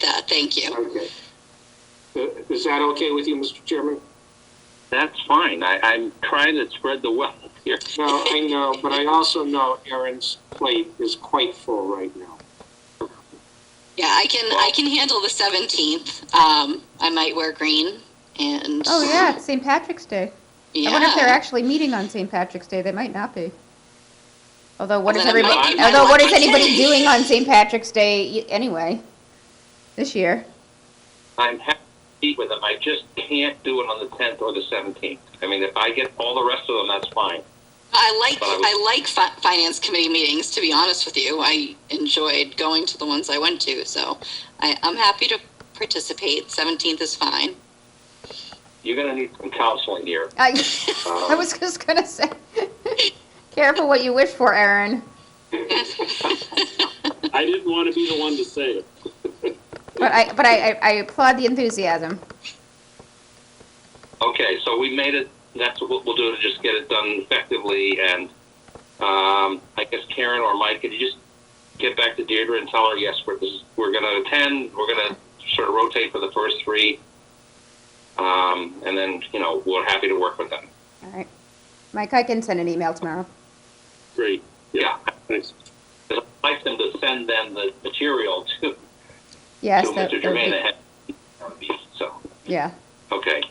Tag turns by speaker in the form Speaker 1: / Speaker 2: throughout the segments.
Speaker 1: that. Thank you.
Speaker 2: Okay. Uh, Is that okay with you, Mr. Chairman?
Speaker 3: That's fine. I, I'm trying to spread the wealth here.
Speaker 2: No, I know, but I also know Aaron's plate is quite full right now.
Speaker 1: Yeah, I can I can handle the seventeenth. Um, I might wear green and
Speaker 4: Oh yeah, it's St. Patrick's Day.
Speaker 1: yeah.
Speaker 4: I wonder if they're actually meeting on St. Patrick's Day. They might not be. Although what is
Speaker 1: Well, then it might
Speaker 4: everybody?
Speaker 1: be my
Speaker 4: Although what is
Speaker 1: lucky
Speaker 4: anybody
Speaker 1: day.
Speaker 4: doing on St. Patrick's Day y- anyway? This year.
Speaker 3: I'm happy with them. I just can't do it on the 10th or the 17th. I mean, if I get all the rest of them, that's fine.
Speaker 1: I like
Speaker 3: But I was-
Speaker 1: I like fi- finance committee meetings. To be honest with you, I enjoyed going to the ones I went to, so I, I'm happy to participate. Seventeenth is fine.
Speaker 3: You're going to need some counseling here.
Speaker 4: I,
Speaker 3: Um,
Speaker 4: I was just gonna say, careful what you wish for, Aaron.
Speaker 5: I didn't want to be the one to say it.
Speaker 4: But I, but I, I- I applaud the enthusiasm.
Speaker 3: Okay, so we made it. That's what we'll do to just get it done effectively. And um, I guess Karen or Mike, could you just get back to Deirdre and tell her yes, we're this, is- we're going to attend. We're going to sort of rotate for the first three, um, and then you know we're happy to work with them.
Speaker 4: All right, Mike, I can send an email tomorrow.
Speaker 5: Great.
Speaker 3: Yeah,
Speaker 5: Thanks.
Speaker 3: I'd like them to send them the material to,
Speaker 4: Yes,
Speaker 3: to
Speaker 4: that,
Speaker 3: Mr.
Speaker 4: that would be-
Speaker 3: Germain ahead. of these, So
Speaker 4: yeah.
Speaker 3: okay,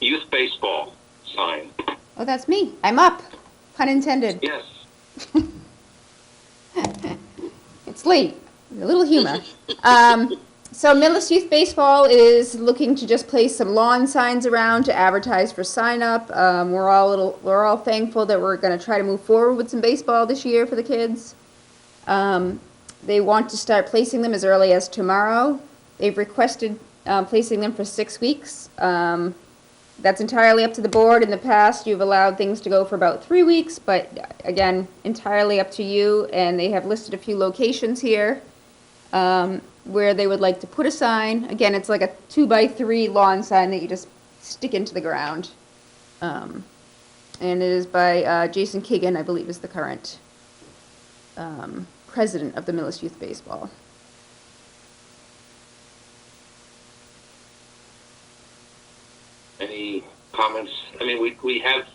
Speaker 3: youth baseball sign.
Speaker 4: Oh, that's me. I'm up. Pun intended.
Speaker 3: Yes,
Speaker 4: It's late. A little humor. um, so, Millis Youth Baseball is looking to just place some lawn signs around to advertise for sign up. Um, we're all a little, we're all thankful that we're going to try to move forward with some baseball this year for the kids. Um, they want to start placing them as early as tomorrow. They've requested um, placing them for six weeks. Um, that's entirely up to the board. In the past, you've allowed things to go for about three weeks, but again, entirely up to you. And they have listed a few locations here um, where they would like to put a sign. Again, it's like a two by three lawn sign that you just stick into the ground. Um, and it is by uh, Jason Kigan, I believe, is the current um, president of the Millis Youth Baseball.
Speaker 3: any comments? I mean, we, we have,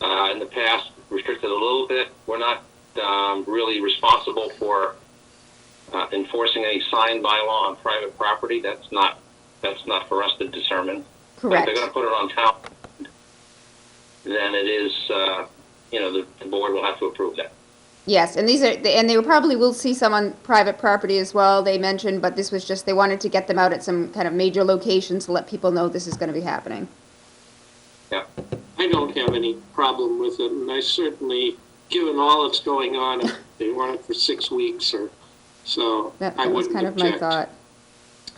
Speaker 3: uh, in the past restricted a little bit. We're not, um, really responsible for, uh, enforcing any sign bylaw on private property. That's not, that's not for us to determine. But If
Speaker 4: Correct.
Speaker 3: they're gonna put it on town, then it is, uh, you know, the, the board will have to approve that.
Speaker 4: Yes, and these are, and they probably will see some on private property as well, they mentioned, but this was just, they wanted to get them out at some kind of major locations to let people know this is gonna be happening.
Speaker 2: I don't have any problem with it, and I certainly, given all that's going on, if they want it for six weeks or so,
Speaker 4: That
Speaker 2: I
Speaker 4: that was
Speaker 2: wouldn't
Speaker 4: kind of my
Speaker 2: object.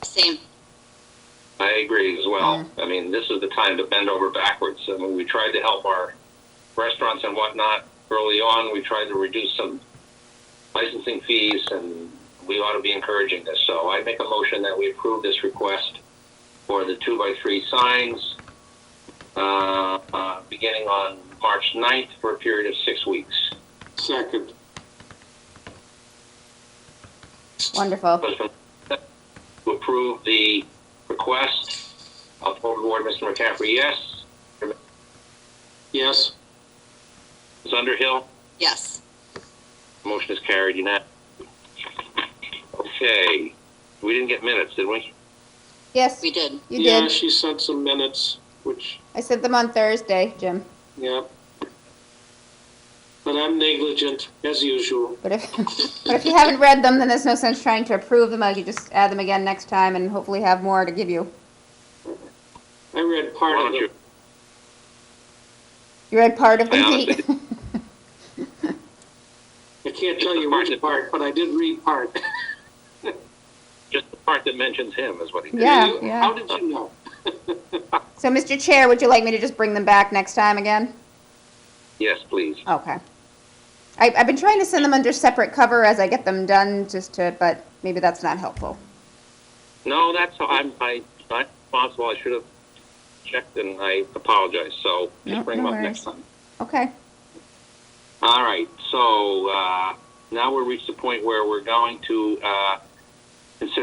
Speaker 4: thought.
Speaker 1: Same.
Speaker 3: I agree as well. I mean, this is the time to bend over backwards. I mean, we tried to help our restaurants and whatnot early on. We tried to reduce some licensing fees, and we ought to be encouraging this. So I make a motion that we approve this request for the two by three signs, uh, uh, beginning on March 9th for a period of six weeks.
Speaker 2: Second.
Speaker 4: Wonderful.
Speaker 3: Motion To approve the request, I'll forward Mr. McCaffrey, yes.
Speaker 2: Yes,
Speaker 3: Ms. Underhill?
Speaker 1: Yes.
Speaker 3: Motion is carried unanimously. Okay, we didn't get minutes, did we?
Speaker 4: Yes,
Speaker 1: We did.
Speaker 4: you
Speaker 2: yeah,
Speaker 4: did.
Speaker 2: she sent some minutes, which,
Speaker 4: I sent them on Thursday, Jim,
Speaker 2: yeah. But I'm negligent, as usual.
Speaker 4: but if, but if you haven't read them, then there's no sense trying to approve them. I could just add them again next time and hopefully have more to give you.
Speaker 2: I read
Speaker 3: Why
Speaker 2: part of
Speaker 3: don't you,
Speaker 2: it.
Speaker 4: You read part of
Speaker 3: I
Speaker 4: them,
Speaker 3: honestly
Speaker 4: Pete?
Speaker 2: I can't tell you which part, but I did read part.
Speaker 3: just the part that mentions him is what he did.
Speaker 4: Yeah,
Speaker 2: You-
Speaker 4: yeah.
Speaker 2: How did you know?
Speaker 4: So, Mr. Chair, would you like me to just bring them back next time again?
Speaker 3: Yes, please.
Speaker 4: Okay. I, I've been trying to send them under separate cover as I get them done, just to, but maybe that's not helpful.
Speaker 3: No, that's, I'm, I, I'm responsible, I should have checked and I apologize, so
Speaker 4: No,
Speaker 3: just bring him
Speaker 4: no
Speaker 3: up next
Speaker 4: worries.
Speaker 3: time.
Speaker 4: Okay.
Speaker 3: All right, so, uh, now we've reached the point where we're going to, uh, consider